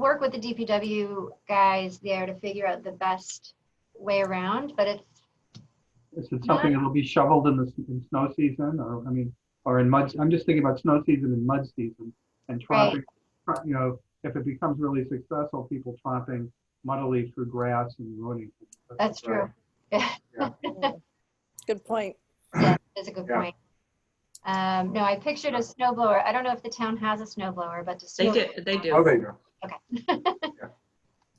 work with the DPW guys there to figure out the best way around, but it's, Is it something that'll be shoveled in the, s- in snow season or, I mean, or in mud, I'm just thinking about snow season and mud season and Right. tromping, tro- you know, if it becomes really successful, people tromping muddily through grass and ruining. things. that's true. Good point. Yeah, that's a good Yeah. point. Um, no, I pictured a snow blower. I don't know if the town has a snow blower, but to. snow- They do, they do. Oh, they do.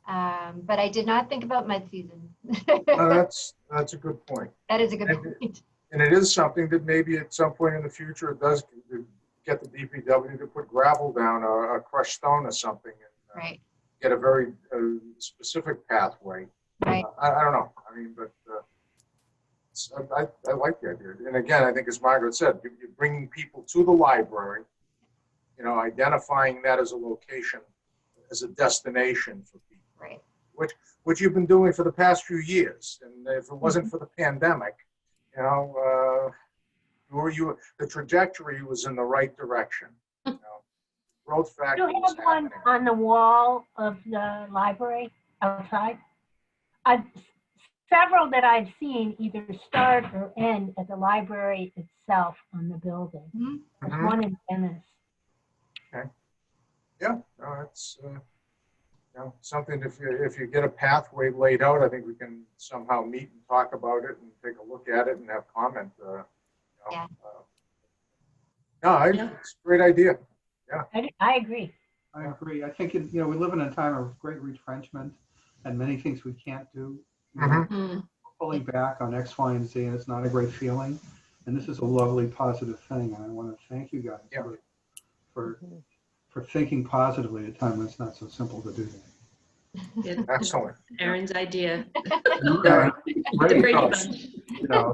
Um, but I did not think about mud season. No, that's, that's a good point. That is a good And- point. And it is something that maybe at some point in the future, it does get the DPW to put gravel down or a crushed stone or something. and, uh, Right, Get a very uh, specific pathway. right. I, I don't know. I mean, but uh, it's- I, I- I like the idea. And again, I think as Margaret said, you- you're bringing people to the library, you know, identifying that as a location, as a destination for people, Right. which you've been doing for the past few years. And if it wasn't for the pandemic, you know, uh, you were you, the trajectory was in the right direction. you know. Growth factor You was have one happening. on the wall of the library outside? I've, several that I've seen either start or end at the library itself on the building. There's Mhm. one in Venice. Yeah, no, it's, uh, you know, something, if you, if you get a pathway laid out, I think we can somehow meet and talk about it and take a look at it and have comment, uh, you know, Yeah. uh, No, I- Yeah. it's a great idea. I, I agree. I agree. I think, it- you know, we live in a time of great retrenchment and many things we can't do. You know, Mm-hmm. Mhm. Mm, Pulling back on X, Y, and Z, and it's not a great feeling. And this is a lovely, positive thing. And I want to thank you guys Yeah. for- for, for thinking positively at a time when it's not so simple to do that. it- Excellent. Aaron's idea. Yeah, I think it's The Brady great, Thoughts. Bunch. you know.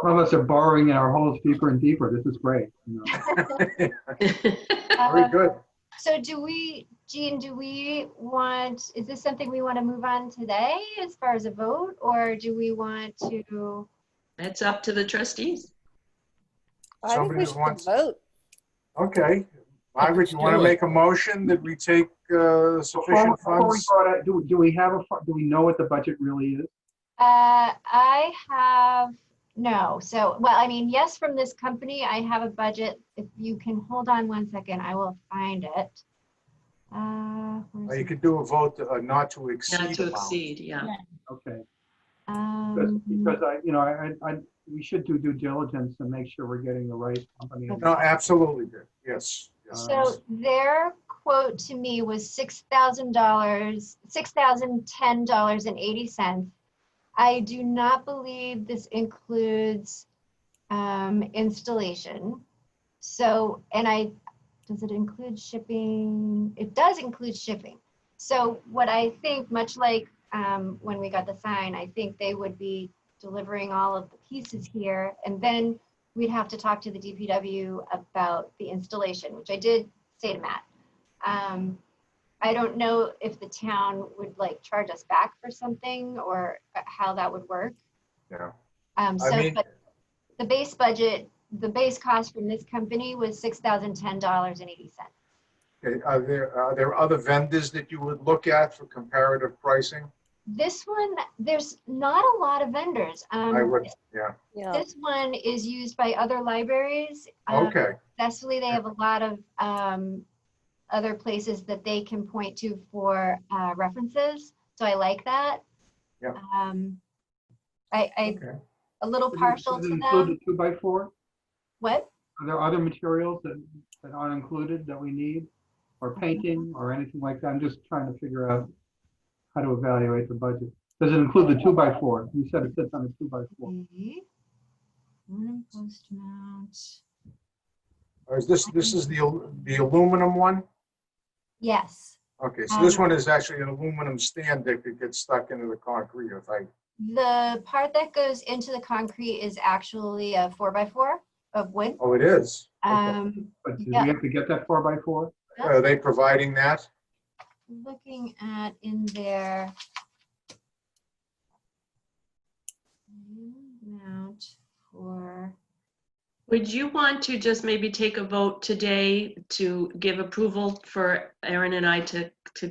Some of us are borrowing our holes deeper and deeper. This is great. you know. Very Uh, good. So do we, Jean, do we want, is this something we want to move on today as far as a vote? Or do we want to, That's up to the trustees. I think Somebody we who should wants- vote. Okay. Margaret, you want to Do it. make a motion that we take uh, Before- sufficient before we funds? go to- uh, Do, do we have a, fu- do we know what the budget really is? uh, I have, no, so, well, I mean, yes, from this company, I have a budget. If you can hold on one second, I will find it. Uh, Or where's You it? could do a vote uh, not to Not exceed to amount. exceed, yeah. Okay. Because, Um, because I, you know, I, I, we should do due diligence and make sure we're getting the right company. No, absolutely, good. yes. yes. So their quote to me was six thousand dollars, six thousand ten dollars and eighty cents. I do not believe this includes um, installation. So, and I, does it include shipping? It does include shipping. So what I think, much like um, when we got the sign, I think they would be delivering all of the pieces here. And then we'd have to talk to the DPW about the installation, which I did say to Matt. Um, I don't know if the town would like charge us back for something or how that would work. Yeah. Um, I so, mean- but the base budget, the base cost from this company was six thousand ten dollars and eighty cents. Okay, are there, are there other vendors that you would look at for comparative pricing? This one, there's not a lot of vendors. I Um, would, yeah, Yeah. this one is used by other libraries. um, okay, successfully, they have a lot of um, other places that they can point to for uh, references. So I like that. Yeah. Um, I, I, okay. a little Does it- partial does it to include them. the Two by four? What? Are there other materials that, that aren't included that we need? Or painting or anything like that? I'm just trying to figure out how to evaluate the budget. Does it include the two by four? You said it sits on a two by four. Okay. Aluminum post mount. Or is this, this is the, al- the aluminum one? Yes, Okay, so this Um, one is actually an aluminum stand that could get stuck into the concrete if I, the part that goes into the concrete is actually a four by four of wood. oh, it is? Okay. Um, But do we Yeah. have to get that four by four? Are they providing that? looking at in their mount for, Would you want to just maybe take a vote today to give approval for Aaron and I to, to